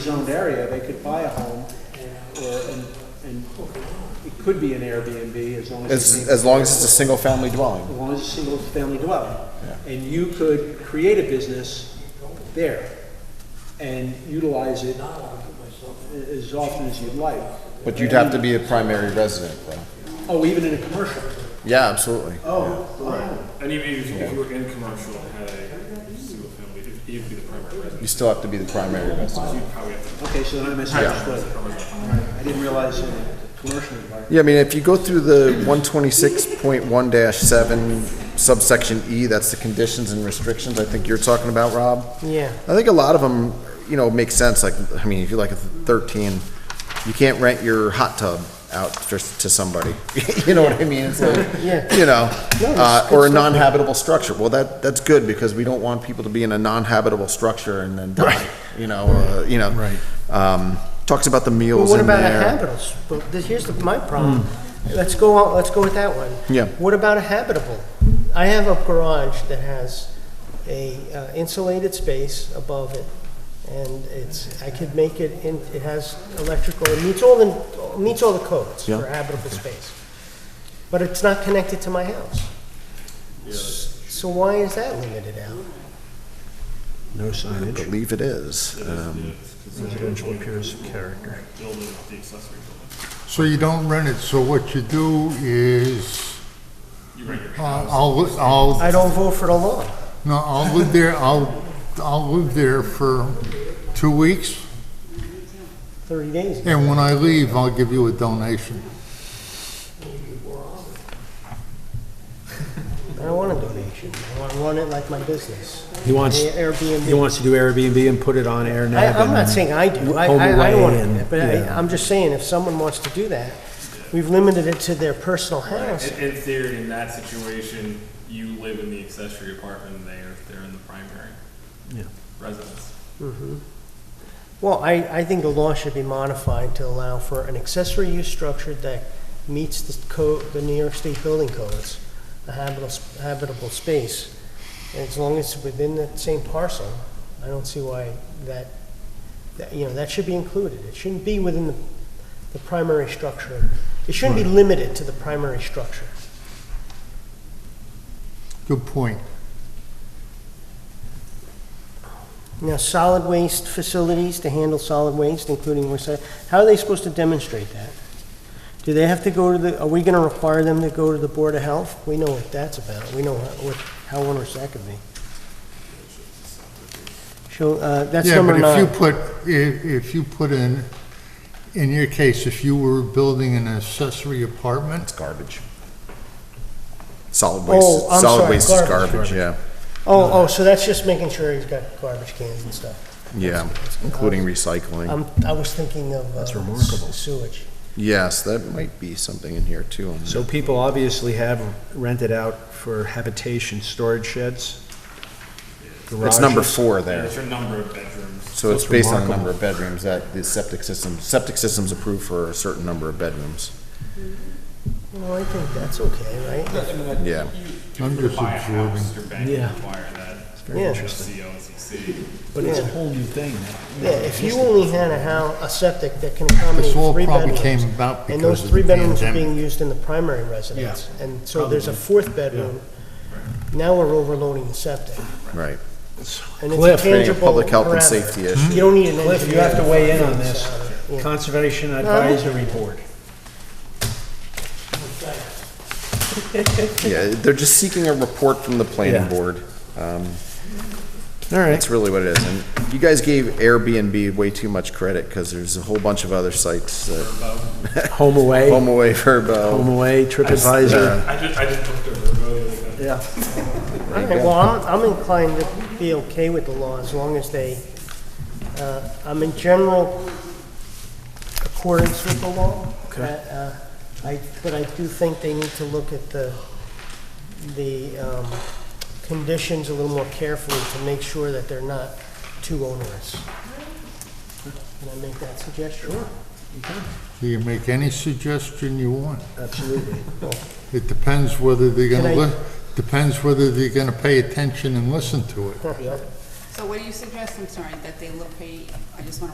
zoned area, they could buy a home or, and, and it could be an Airbnb as long as. As, it's- as long as it's a single family dwelling. As long as it's a single-family dwelling. And you could create a business there and utilize it a- as often as you'd like. But you'd have to be a primary resident though. Oh, even in a commercial? Yeah, absolutely. Oh. And even if, if you were in commercial, had a single family, if you'd be the primary resident, You still have to be the primary resident. you'd probably have to. Okay, so then I misunderstood. I didn't realize in a commercial environment. Yeah, I mean, if you go through the one twenty-six point one seven subsection E, that's the conditions and restrictions I think you're talking about, Rob. Yeah. I think a lot of them, you know, make sense. Like, I mean, if you like a thirteen, you can't rent your hot tub out just to somebody. you know what I mean? It's like, Yeah. you know, uh, or a non-habitable structure. Well, that that's good because we don't want people to be in a non-habitable structure and then die. You know, uh, you know. Right. Um, talks about the meals Well, what in about a there. habitable? s- Well, this, here's the, my problem. Let's go on, let's go with that one. Yeah. What about a habitable? I have a garage that has a uh, insulated space above it, and it's, I could make it, in. it has electrical, it meets all the, meets all the codes Yeah. for habitable space. But it's not connected to my house. So why is that limited out? No I signage. believe it is. Um, Residential appearance of character. Building up the accessory building. So you don't rent it, so what you do is, You rent your uh, I'll, li- I'll, I don't vote for the law. no, I'll live there, I'll, I'll live there for two weeks, Thirty days. and when I leave, I'll give you a donation. I don't want a donation. I want, I want it like my business. He wants, Airbnb. he wants to do Airbnb and put it on AirNav. I, I'm and- not saying I do, I, Home I, I don't want away and- to, but I, yeah. I'm just saying, if someone wants to do that, we've limited it to their personal house. In, in theory, in that situation, you live in the accessory apartment, and they're, they're in the primary Yeah. residence. Well, I, I think the law should be modified to allow for an accessory use structure that meets the code, the New York State building codes, a habitable, habitable space. And as long as it's within the same parcel, I don't see why that, that, you know, that should be included. It shouldn't be within the, the primary structure. It shouldn't be limited to the primary structure. Good point. Now, solid waste facilities to handle solid waste, including recycling, how are they supposed to demonstrate that? Do they have to go to the, are we gonna require them to go to the Board of Health? We know what that's about, we know how- what, how onerous that could be. Show, uh, that's Yeah, number but if you nine. put, if, if you put in, in your case, if you were building an accessory apartment, it's garbage. Solid Oh, waste. I'm solid sorry, waste is garbage. garbage. Yeah. Oh, oh, so that's just making sure he's got garbage cans and stuff. Yeah, including recycling. I'm, I was thinking of uh, remarkable. sewage. Yes, that might be something in here too. on So people obviously have rented out for habitation, storage sheds. that. It's number garages. four And there. it's your number of bedrooms. So it's That's based on the remarkable. number of bedrooms that the septic system, septic system's approved for a certain number of bedrooms. Well, I think that's okay, right? Yeah. I'm just Buy a absorbing. house, your bank Yeah. would require that. It's very interesting. CO and CC. But it's a Yeah. whole new thing. now. Yeah, if you only had a house, a septic that can accommodate This all three probably bedrooms. came about And those because of three the bedrooms are pandemic. being used in the primary residence. And so there's a fourth bedroom. Now we're overloading the septic. Right. And it's Cliff, a Creating a tangible public health and parameter. safety You issue. don't need an engineer. Cliff, you have to weigh in on this. Yeah. Conservation Advisory Board. Yeah, they're just seeking a report from the planning Yeah. board. Um, All right. That's really what it is. And you guys gave Airbnb way too much credit because there's a whole bunch of other sites that, Home away, Home Away, home Verbo. uh, away, TripAdvisor. I just, I just looked over. the- Yeah. All right, well, I'm, I'm inclined to be okay with the law as long as they, uh, I'm in general accordance with the law. Okay. Uh, uh, I, but I do think they need to look at the, the, um, conditions a little more carefully to make sure that they're not too onerous. Can I make that suggestion? Do you make any suggestion you want? Absolutely. It depends whether they're gonna, Can I- li- depends whether they're gonna pay attention and listen to it. So what do you suggest? I'm sorry, that they look, pay- I just want to